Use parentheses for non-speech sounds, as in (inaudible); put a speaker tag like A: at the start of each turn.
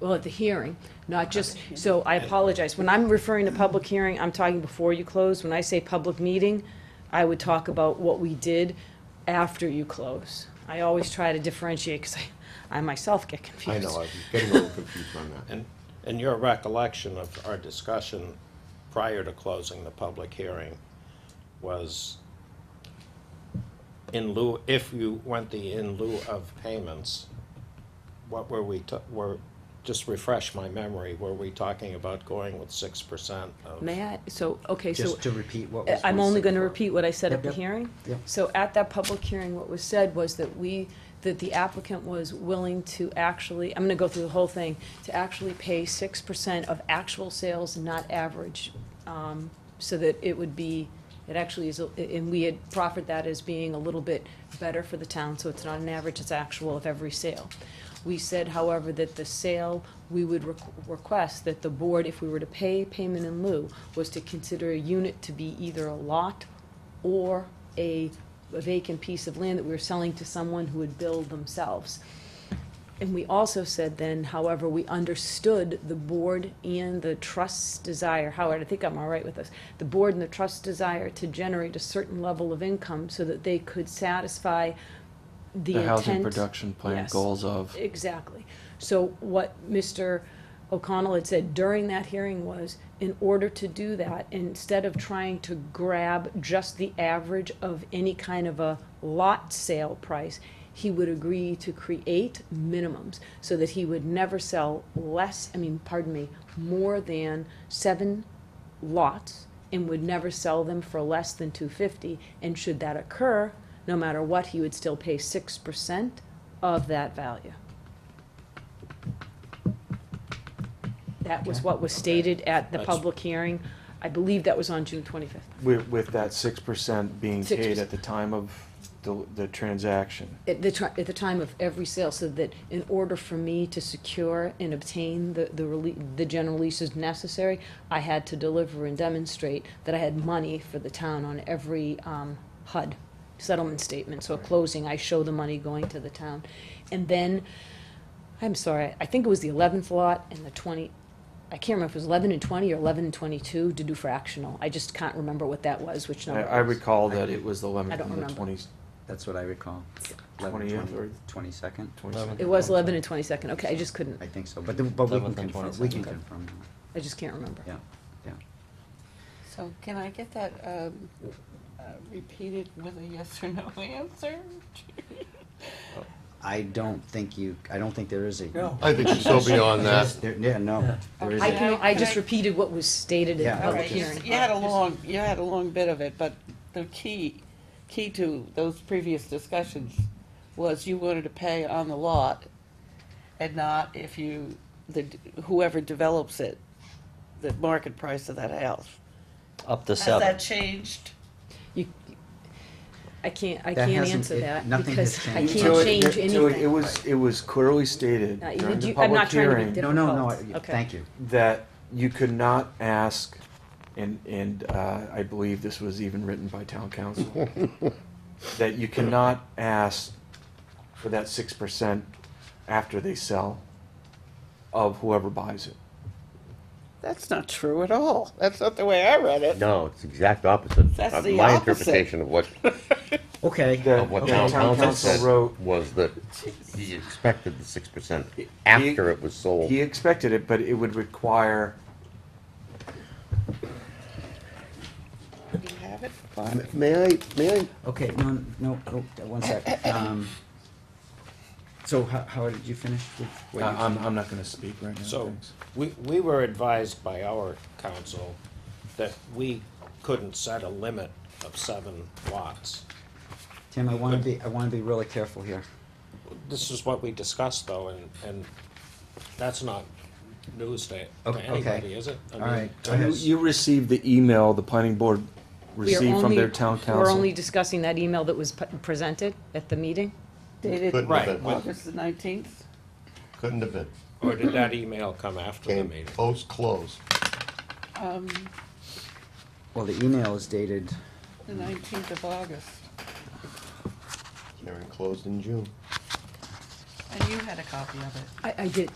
A: well, at the hearing, not just, so I apologize. When I'm referring to public hearing, I'm talking before you close. When I say public meeting, I would talk about what we did after you close. I always try to differentiate, because I, I myself get
B: I
A: confused.
B: know, I'm getting a little confused on that.
C: And, and your recollection of our discussion prior to closing the public hearing was in lieu, if you went the in lieu of payments, what were we, ta- were, just refresh my memory, were we talking about going with six percent of?
A: May I, so, okay, so.
D: Just to repeat what
A: Uh,
D: was.
A: I'm only going to
D: before.
A: repeat what I said at
D: Yep,
A: the
D: yep,
A: hearing.
D: yep.
A: So at that public hearing, what was said was that we, that the applicant was willing to actually, I'm going to go through the whole thing, to actually pay six percent of actual sales, not average, um, so that it would be, it actually is, a- and we had proffered that as being a little bit better for the town, so it's not an average, it's actual of every sale. We said, however, that the sale, we would requ- request that the board, if we were to pay payment in lieu, was to consider a unit to be either a lot or a a vacant piece of land that we were selling to someone who would build themselves. And we also said then, however, we understood the board and the trust's desire, Howard, I think I'm all right with this, the board and the trust's desire to generate a certain level of income so that they could satisfy the
E: The
A: intent.
E: housing production plan
A: Yes.
E: goals of,
A: Exactly. So what Mr. O'Connell had said during that hearing was, in order to do that, instead of trying to grab just the average of any kind of a lot sale price, he would agree to create minimums so that he would never sell less, I mean, pardon me, more than seven lots and would never sell them for less than two fifty, and should that occur, no matter what, he would still pay six percent of that value. That was what was stated at the
C: That's-
A: public hearing, I believe that was on June twenty-fifth.
F: With, with that six percent being
A: 6%.
F: paid at the time of the, the transaction.
A: At the ti- at the time of every sale, so that in order for me to secure and obtain the, the release, the general leases necessary, I had to deliver and demonstrate that I had money for the town on every, um, HUD settlement statement, so at closing, I show the money going to the town. And then, I'm sorry, I think it was the eleventh lot and the twenty, I can't remember if it was eleven and twenty or eleven and twenty-two to do fractional, I just can't remember what that was, which
F: I,
A: number.
F: I
A: it was.
F: recall
E: that
F: that
E: it was the lemon,
A: I don't
F: the
A: remember.
F: twenties,
D: That's what I recall. 11,
F: 20th
D: 20
F: or-
D: 22nd?
A: It was eleven and twenty-second, okay, I just couldn't,
D: I think so, but, the- but we can
E: 11th and
D: confirm, we can
E: 22nd.
D: confirm,
A: I just can't remember.
D: that. yeah, yeah.
G: So can I get that um, uh, repeated with a yes or no (laughs) answer?
D: I don't think you, I don't think there is a. No.
B: I think she's so beyond that.
D: Yeah, no, there
A: I
D: isn't.
A: can, I
G: Can
A: just
G: I-
A: repeated what was stated in
D: Yeah.
A: the
D: All
A: public
D: right,
G: Okay, you
A: hearing.
G: you had a long, you had a long bit of it, but the key, key to those previous discussions was you wanted to pay on the lot and not if you, the whoever develops it, the market price of that house.
H: Up to
G: Has
H: seven.
G: that changed?
A: You, I can't, I
D: That
A: can't
D: hasn't-
A: answer
D: it-
A: that
D: nothing has
A: because I
D: changed.
F: Till
A: can't
F: it-
A: change
F: it- till it- It
A: anything.
F: was, it was clearly stated
A: Now, you-
F: during
A: you-
F: the
A: I'm not trying
F: public
A: to be
F: hearing
A: difficult.
D: No, no, no, I-
A: Okay.
D: thank you.
F: that you could not ask, and, and, uh, I believe this was even written by
I: (laughs)
F: town council, that you cannot ask for that six percent after they sell of whoever buys it.
G: That's not true at all. That's not the way I read it.
I: No, it's the exact opposite.
G: That's
I: Uh,
G: the
I: My
G: opposite.
I: interpretation of what,
D: Okay.
F: That
I: of what
F: the
I: town council
F: wrote,
I: said was that he expected the six percent after it was sold.
F: he expected it, but it would require
G: Do you have it?
I: M- May I, may I
D: Okay, no, no, oh, one sec. Um, So how, how did you finish with what you?
F: uh,
B: Uh, um,
F: I'm, I'm not gonna speak right now,
C: So,
F: thanks.
C: we, we were advised by our council that we couldn't set a limit of seven lots.
D: Tim, I wanna be, I wanna be really careful here.
C: This is what we discussed though, and, and that's not news to, to
D: Okay, okay.
C: anybody, is it? I
D: All
C: mean,
D: right.
C: to
D: Go ahead.
F: You, you received the email the planning board
A: We are
F: received from
A: only-
F: their town
A: We're
F: council.
A: only discussing that email that was pu- presented at the meeting.
G: Dated
I: Couldn't
C: Right,
I: have been,
G: August the nineteenth?
I: couldn't have been.
C: Or did that email come after the
I: Came
C: meeting?
I: post-close.
G: Um,
D: Well, the email is dated,
G: the nineteenth of August.
I: Hearing closed in June.
G: And you had a copy of it.
A: I, I did,